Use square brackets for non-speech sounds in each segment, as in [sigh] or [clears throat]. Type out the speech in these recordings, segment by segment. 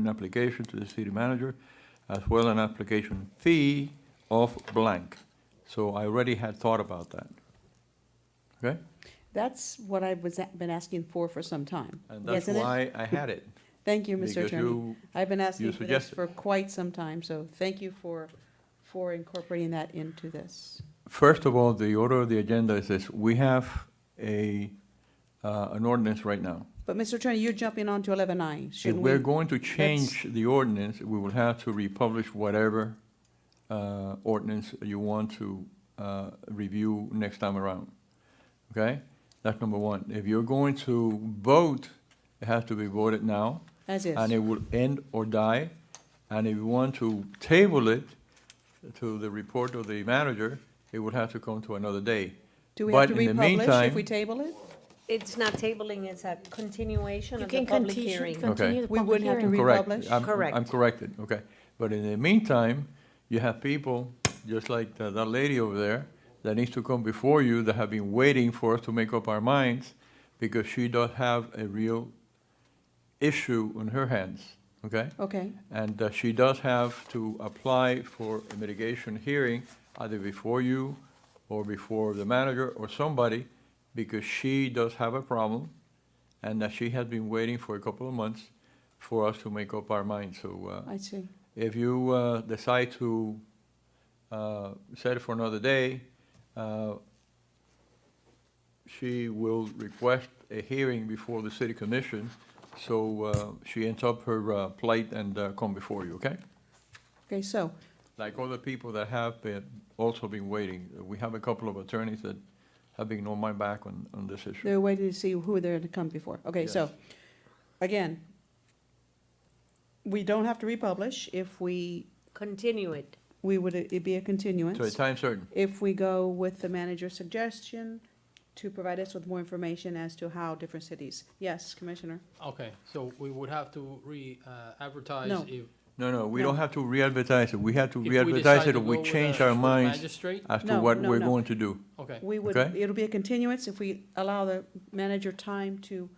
an application to the city manager, as well an application fee of blank. So I already had thought about that. Okay? That's what I was, a- been asking for for some time. And that's isn't it? why I had it. Thank you, Mr. because Attorney. you- I've been you asking for this suggested. for quite some time, so thank you for, for incorporating that into this. First of all, the order of the agenda is this, we have a, uh, an ordinance right now. But, Mr. Attorney, you're jumping on to eleven I, If shouldn't we? we're going to change the ordinance, we will have to republish whatever uh, ordinance you want to uh, review next time around. Okay? That's number one. If you're going to vote, it has to be voted now, As and is. it will end or die. And if you want to table it to the report of the manager, it will have to come to another day. Do we have but to in the republish if meantime- we table it? It's not tabling, it's a continuation You of the can public conti- hearing. continue the We public wouldn't have to hearing. Correct. Republish? I'm- I'm Correct. corrected, okay. But in the meantime, you have people, just like tha- that lady over there, that needs to come before you, that have been waiting for us to make up our minds, because she does have a real issue on her hands, okay? Okay, And uh, she does have to apply for a mitigation hearing, either before you or before the manager or somebody, because she does have a problem, and that she has been waiting for a couple of months for us to make up our minds. So uh, I see. if you uh, decide to uh, set it for another day, uh, she will request a hearing before the city commission, so uh, she ends up her uh, plight and uh, come before you, okay? Okay, so, Like other people that have been, also been waiting. We have a couple of attorneys that have been on my back on, on this issue. they're waiting to see who they're to come before. Okay, so, Yes. again, we don't have to republish if we, Continue it. we would, it'd be a continuance. To a time certain. if we go with the manager's suggestion to provide us with more information as to how different cities. Yes, Commissioner? Okay, so we would have to re-advertise No. if. if No, no, we No. don't have to re-advertise it. We have to we re-advertise decide it to or we go with change a our full minds Magistrate, as to No, what no, we're no. going to do. okay. We would, Okay. it'll be a continuance if we allow the manager time to,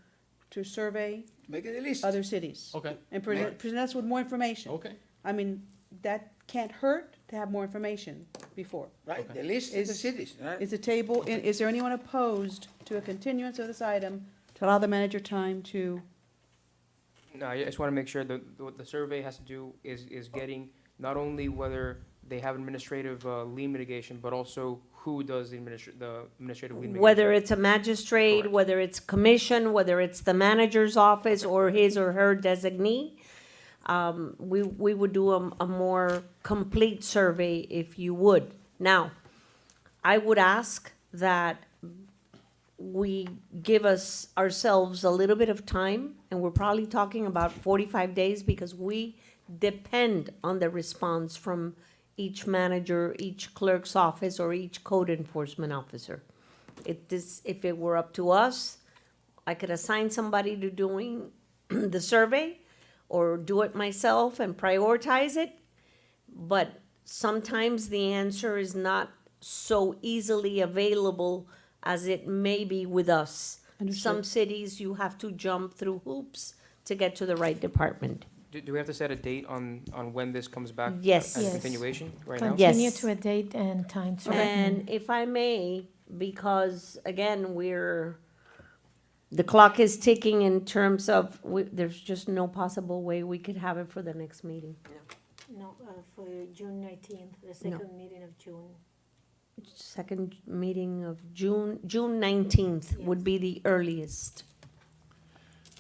to survey Make it a list. other cities. Oh, Okay, And present, present us with more information. okay, I mean, that can't hurt to have more information before. Right, the list is the Is- cities, right? Is the table, i- is there anyone opposed to a continuance of this item to allow the manager time to, No, I just want to make sure that what the survey has to do is, is getting not only whether they have administrative uh, lien mitigation, but also who does the administr, the administrative lien mitigation. Whether it's a magistrate, Correct. whether it's commission, whether it's the manager's office or his or her designee, um, we, we would do a, a more complete survey if you would. Now, I would ask that we give us ourselves a little bit of time, and we're probably talking about forty-five days because we depend on the response from each manager, each clerk's office, or each code enforcement officer. If this, if it were up to us, I could assign somebody to doing [clears throat] the survey or do it myself and prioritize it. But sometimes the answer is not so easily available as it may be with us. Some Understood. cities, you have to jump through hoops to get to the right department. Do, do we have to set a date on, on when this comes back? Yes. As a Yes. continuation, right now? Continue Yes. to a date and time certain. And if I may, because again, we're, the clock is ticking in terms of, we- there's just no possible way we could have it for the next meeting. No, uh, for June nineteenth, the second meeting of June. Second meeting of June, June nineteenth would be the earliest.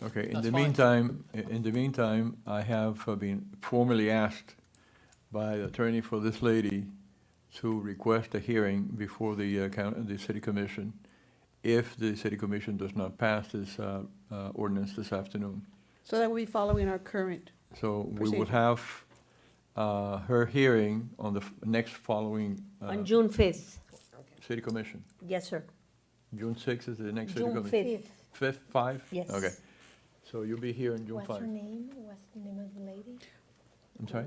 Okay, in That's the fine. meantime, i- in the meantime, I have uh, been formally asked by the attorney for this lady to request a hearing before the, uh, coun- the city commission if the city commission does not pass this uh, uh, ordinance this afternoon. so that we be following our current? So we will Procedure. have uh, her hearing on the f- next following uh, On June fifth. city commission. Yes, sir. June sixth is the next city June commission. fifth. Fifth, five? Yes. Okay, so you'll be here on June What's five. her name? What's the name of the lady? I'm sorry?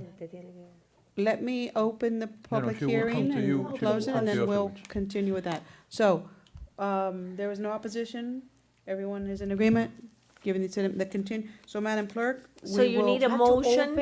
let me open the public she will come hearing to you. She and will close it, come and to you then we'll afterwards. continue with that. So, um, there was no opposition, everyone is in agreement? giving it to them, the continue, so Madam Clerk, So we you will need a have to motion